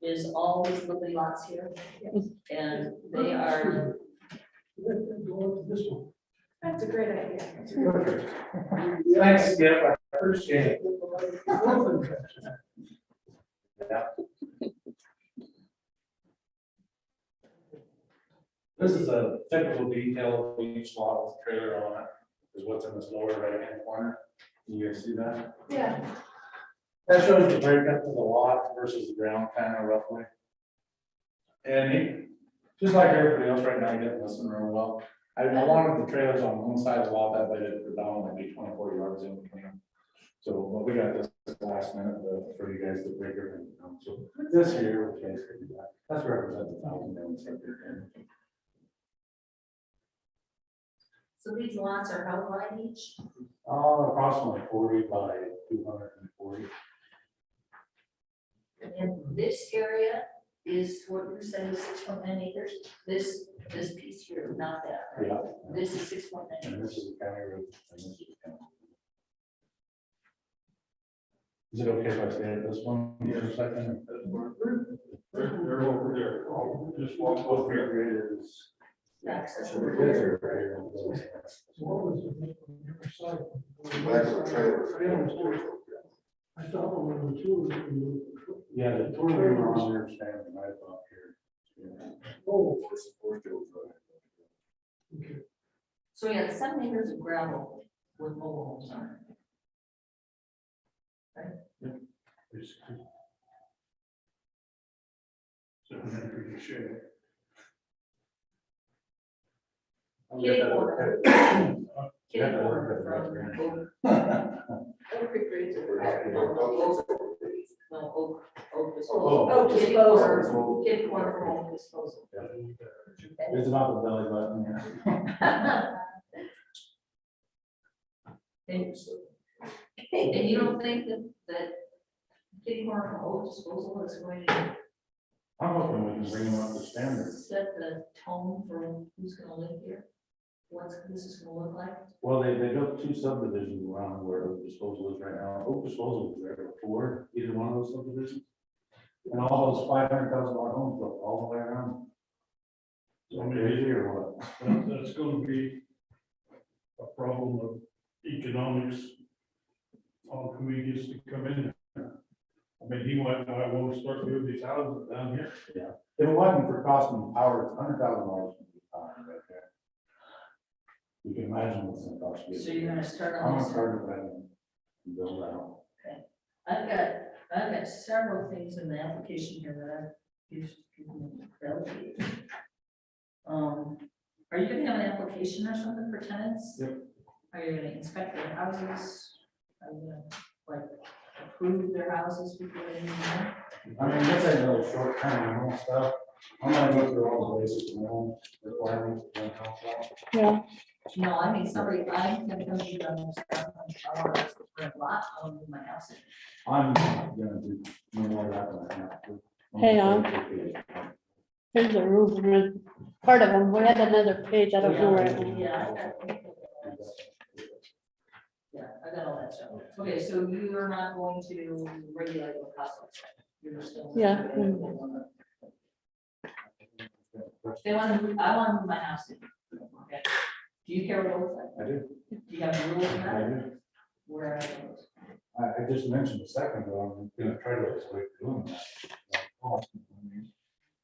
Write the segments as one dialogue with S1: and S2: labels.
S1: is all these lovely lots here. And they are,
S2: Let them go up to this one.
S3: That's a great idea.
S2: Perfect. Thanks, Skip, I appreciate it. Yeah. This is a technical detail of each model's trailer on it, is what's in this lower right-hand corner. Can you guys see that?
S3: Yeah.
S2: That shows the breakup of the lot versus the ground kind of roughly. And it- just like everybody else right now, you didn't listen real well. I I wanted the trailers on one side of the lot that they did predominantly be twenty-four yards in between them. So, but we got this last minute uh, for you guys to figure it out. So this here, which is, that's represented a thousand dollars. right there.
S1: so these lots are how wide each?
S2: Uh, approximately forty by two hundred and forty.
S1: And this area is what you're saying, six point nine acres, this, this piece here, not that, right?
S2: Yeah.
S1: This is six point nine.
S2: And this is the county road. and this is the county. Is it okay if I stay at this one for a second?
S4: They're, they're over there, I'll just walk
S2: Both
S4: over here.
S2: rear is.
S1: That's-
S2: So the kids are right here.
S4: What was the name on the other side?
S5: That's a trailer.
S4: I thought one of the two was.
S2: Yeah, the tour we were on there standing right up here.
S4: Oh, okay.
S1: So we had seven acres of gravel with mobile homes on it.
S2: There's-
S4: So I'm not pretty sure.
S2: I'll get that worked out.
S1: Kitty
S2: Yeah,
S1: corner
S2: that's
S1: from Oak,
S3: Oak Creek Ridge.
S1: Oak, Oak, no, Oak, Oak disposal.
S2: Oh.
S3: Oak
S1: Kitty
S3: disposal.
S1: corner, kitty corner from Oak disposal.
S2: It's not the belly button, yeah.
S1: And and you don't think that, that kitty corner from Oak disposal is going to
S2: I'm hoping we can bring them up to standard.
S1: Set the tone for who's gonna live here, what's this is gonna look like.
S2: Well, they, they built two subdivisions around where Oak disposal is right now. Oak disposal was there before, either one of those subdivisions. And all those five hundred thousand dollar homes built all the way around. So maybe or what?
S4: That- That's gonna be a problem of economics. On who he gets to come in. I mean, he went, I want to start moving these houses down here.
S2: If it wasn't for cost and power, it's hundred thousand dollars. would be fine right there. You can imagine what's in cost.
S1: So you're gonna start
S2: I'm
S1: on
S2: gonna
S1: this.
S2: start it right now. and Build out.
S1: I've got, I've got several things in the application here that I've used. Um, are you gonna have an application or something for tenants?
S2: Yep.
S1: Are you gonna inspect their houses? Are you gonna, like, approve their houses before they move in?
S2: I mean, this ain't really short term, and all stuff. I'm gonna go through all the basic minimum requirements. and all that.
S1: No, I mean, somebody, I can tell you that I'm a lot on my house.
S2: I'm not gonna do no more of that than I have to.
S6: Hey, um, Here's a roof, ridge. part of them, we had another page, I don't know where. it went.
S1: Yeah, I got. Yeah, I got all that stuff. Okay, so you are not going to regulate the process. You're still.
S6: Yeah.
S1: They want to, I want to move my house in. Okay. Do you care what it looks like?
S2: I do,
S1: Do you have rules
S2: I
S1: about
S2: do.
S1: where I live?
S2: I, I just mentioned a second ago, I'm gonna try to explain doing that.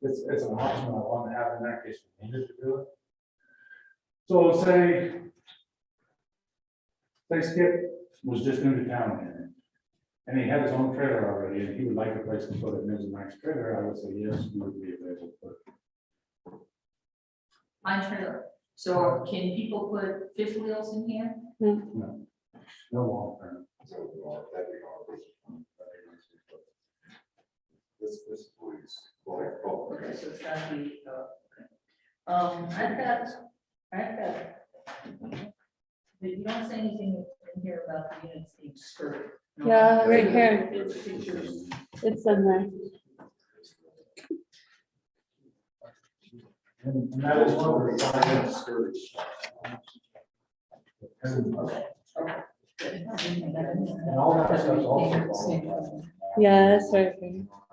S2: It's, it's an option I want to have in that case, we needed to do it. So say. Say Skip was just new to town here. And he had his own trailer already, and he would like a place to put it, and there's a nice trailer, I would say, yes, we would be available, but
S1: My trailer. So can people put fifth wheels in here?
S2: no long term.
S5: This, this police, like,
S1: Okay,
S5: oh,
S1: so it's gotta be, uh, okay. um, I've got, I've got. But you don't say anything in here about the units being skirted. No.
S6: Yeah, right here,
S1: It's pictures.
S6: it's in there.
S2: And and that is one of the requirements. And
S1: And
S2: all that stuff's also. qualified.
S6: Yeah, that's right.